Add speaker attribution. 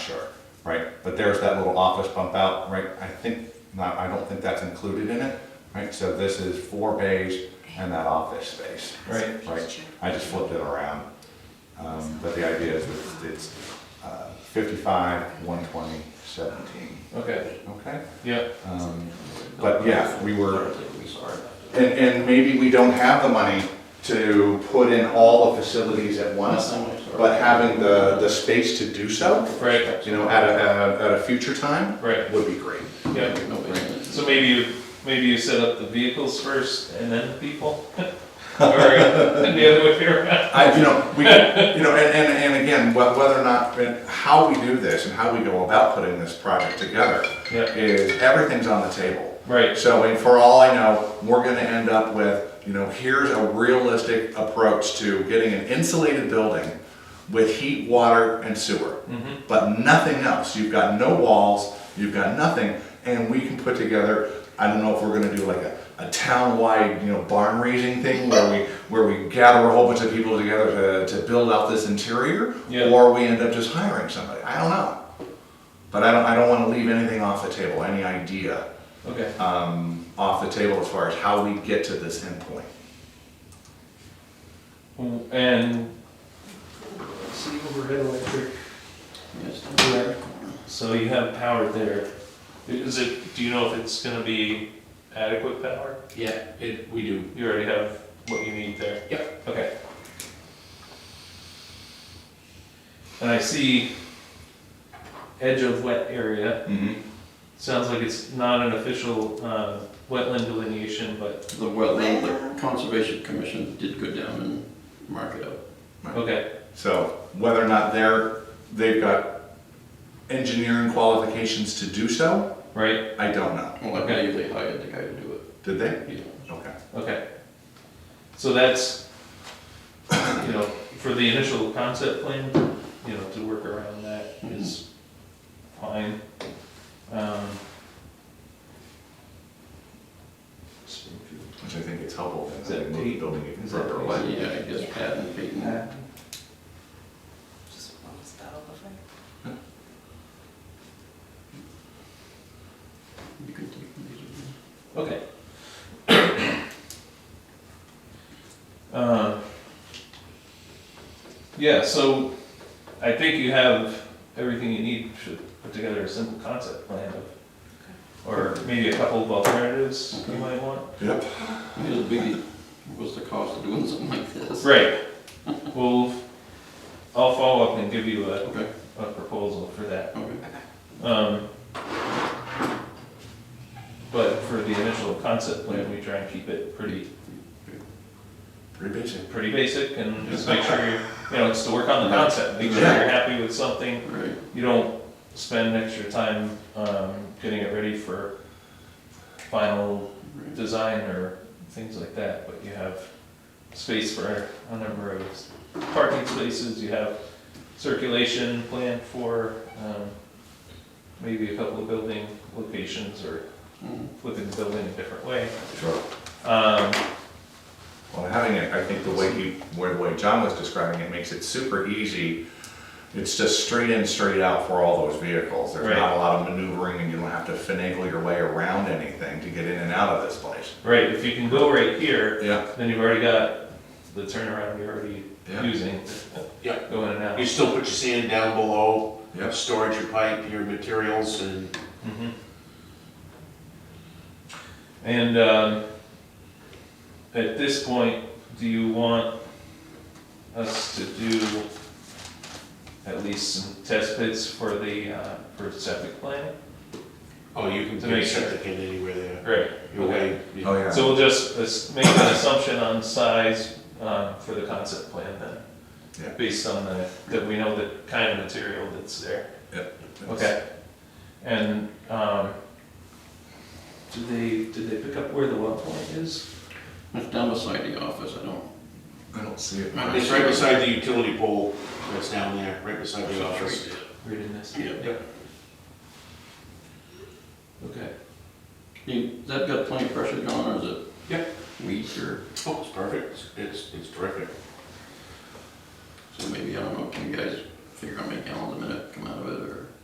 Speaker 1: sure.
Speaker 2: right? But there's that little office bump out, right? I think, no, I don't think that's included in it, right? So this is four bays and that office space.
Speaker 1: Right.
Speaker 2: Right, I just flipped it around. Um, but the idea is that it's uh, fifty-five, one twenty, seventeen,
Speaker 1: Okay,
Speaker 2: okay?
Speaker 1: yeah.
Speaker 2: Um, But yeah, we were,
Speaker 3: We saw it.
Speaker 2: and, and maybe we don't have the money to put in all the facilities at once, but having the, the space to do so,
Speaker 1: Right,
Speaker 2: you know, at a, at a, at a future time,
Speaker 1: right,
Speaker 2: would be great.
Speaker 1: yeah.
Speaker 3: No basement.
Speaker 1: So maybe you, maybe you set up the vehicles first and then people? Or uh, and the other way around?
Speaker 2: I, you know, we, you know, and, and, and again, wh- whether or not, and how we do this and how we go about putting this project together
Speaker 1: Yeah,
Speaker 2: is everything's on the table.
Speaker 1: right,
Speaker 2: So, and for all I know, we're gonna end up with, you know, here's a realistic approach to getting an insulated building with heat, water, and sewer. But nothing else, you've got no walls, you've got nothing, and we can put together, I don't know if we're gonna do like a, a town-wide, you know, barn raising thing where we, where we gather a whole bunch of people together to, to build out this interior,
Speaker 1: Yeah.
Speaker 2: or we end up just hiring somebody, I don't know. But I don't, I don't wanna leave anything off the table, any idea
Speaker 1: okay.
Speaker 2: um, off the table as far as how we get to this endpoint.
Speaker 1: And
Speaker 4: See overhead electric.
Speaker 3: Yes.
Speaker 1: so you have power there. Is it, do you know if it's gonna be adequate power?
Speaker 3: Yeah, it, we do.
Speaker 1: You already have what you need there? Yep. Okay. And I see edge of wet area. Sounds like it's not an official uh, wetland delineation, but,
Speaker 3: The wetland, the Conservation Commission did go down and mark it up.
Speaker 1: okay,
Speaker 2: So whether or not they're, they've got engineering qualifications to do so,
Speaker 1: right,
Speaker 2: I don't know.
Speaker 3: Well, I believe they hired the guy to do
Speaker 2: Did they?
Speaker 3: it, you know.
Speaker 2: Okay.
Speaker 1: okay. So that's, you know, for the initial concept plan, you know, to work around that is fine. Um, Springfield.
Speaker 2: Which I think is helpful. then,
Speaker 1: Is that
Speaker 2: move the
Speaker 1: Pete?
Speaker 2: Building even
Speaker 1: Is that
Speaker 2: further
Speaker 1: Pete?
Speaker 2: away.
Speaker 3: Yeah, I guess Pat and Peyton.
Speaker 5: Just what was that all over?
Speaker 3: You can take these.
Speaker 1: Okay. Um, Yeah, so I think you have everything you need to put together a simple concept plan of, or maybe a couple of alternatives you might want.
Speaker 2: Yep.
Speaker 3: I mean, the biggie was the cost of doing something like this.
Speaker 1: Right, well, I'll follow up and give you a,
Speaker 3: Okay,
Speaker 1: a proposal for that.
Speaker 3: okay.
Speaker 1: Um, But for the initial concept plan, we try and keep it pretty
Speaker 2: Pretty basic.
Speaker 1: pretty basic and just make sure you, you know, it's to work on the concept, make sure you're
Speaker 2: Yeah.
Speaker 1: happy with something.
Speaker 3: Right,
Speaker 1: You don't spend extra time, um, getting it ready for final
Speaker 3: right.
Speaker 1: design or things like that, but you have space for a number of parking spaces, you have circulation planned for, um, maybe a couple of building locations or
Speaker 3: Mhm.
Speaker 1: flipping the building a different way.
Speaker 2: Sure.
Speaker 1: Um,
Speaker 2: Well, having it, I think the way he, where the way John was describing it makes it super easy. It's just straight in, straight out for all those vehicles. There's
Speaker 1: Right.
Speaker 2: not a lot of maneuvering and you don't have to finagle your way around anything to get in and out of this place.
Speaker 1: right, if you can go right here,
Speaker 2: Yeah,
Speaker 1: Then you've already got the turnaround you're already
Speaker 2: Yeah.
Speaker 1: using.
Speaker 6: Yeah.
Speaker 1: Go in and out.
Speaker 6: You still put your sand down below,
Speaker 2: yeah.
Speaker 6: storage your pipe, your materials, and
Speaker 1: Mhm. And, um, at this point, do you want us to do at least some test pits for the, uh, for septic planning?
Speaker 6: oh, you can
Speaker 1: To make
Speaker 6: put
Speaker 1: sure.
Speaker 6: septic in anywhere there.
Speaker 1: Right.
Speaker 6: Your way, you-
Speaker 2: Oh, yeah.
Speaker 1: So we'll just as- make an assumption on size, um, for the concept plan then?
Speaker 2: Yeah.
Speaker 1: Based on the, that we know the kind of material that's there. Okay, and, um, did they, did they pick up where the well point is?
Speaker 3: It's down beside the office, I don't,
Speaker 2: I don't see it.
Speaker 3: Right.
Speaker 6: It's right beside the utility pole that's down there, right beside the office.
Speaker 1: Reading this? Okay,
Speaker 3: You- That got plenty of pressure gone, or is it?
Speaker 6: Yep.
Speaker 3: Weeds or,
Speaker 6: Oh, it's perfect, It's- it's, it's terrific.
Speaker 3: so maybe, I don't know, can you guys figure out, make gallons a minute come out of it, or?